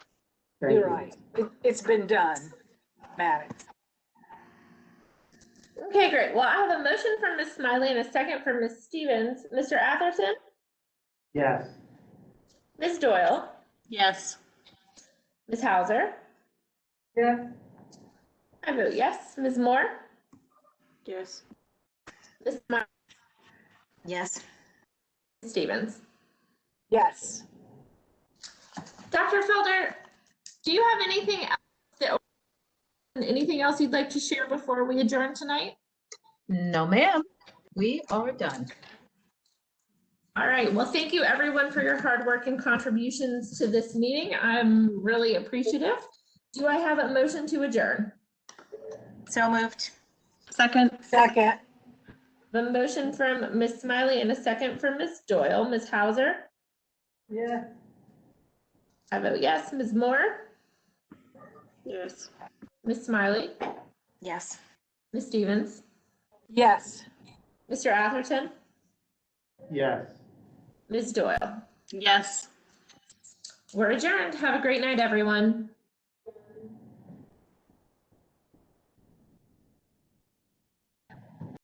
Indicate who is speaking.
Speaker 1: Thank
Speaker 2: You're
Speaker 1: you.
Speaker 2: right. It, it's been done, Maddox.
Speaker 3: Okay, great. Well, I have a motion from Ms. Smiley and a second from Ms. Stevens. Mr. Atherton,
Speaker 1: Yes.
Speaker 3: Ms. Doyle,
Speaker 4: Yes.
Speaker 3: Ms. Hauser.
Speaker 1: Yeah.
Speaker 3: I vote yes. Ms. Moore,
Speaker 4: Yes.
Speaker 3: Ms. Smiley,
Speaker 4: Yes.
Speaker 3: Ms. Stevens.
Speaker 2: Yes.
Speaker 3: Dr. Felder, do you have anything else that, anything else you'd like to share before we adjourn tonight?
Speaker 4: No, ma'am. We are done.
Speaker 3: All right. Well, thank you everyone for your hard work and contributions to this meeting. I'm really appreciative. Do I have a motion to adjourn?
Speaker 4: So moved.
Speaker 5: Second,
Speaker 2: Second,
Speaker 3: The motion from Ms. Smiley and a second from Ms. Doyle. Ms. Hauser?
Speaker 1: Yeah.
Speaker 3: I vote yes. Ms. Moore?
Speaker 5: yes.
Speaker 3: Ms. Smiley?
Speaker 4: Yes.
Speaker 3: Ms. Stevens?
Speaker 2: yes.
Speaker 3: Mr. Atherton?
Speaker 1: Yes.
Speaker 3: Ms. Doyle?
Speaker 5: Yes.
Speaker 3: We're adjourned. Have a great night, everyone.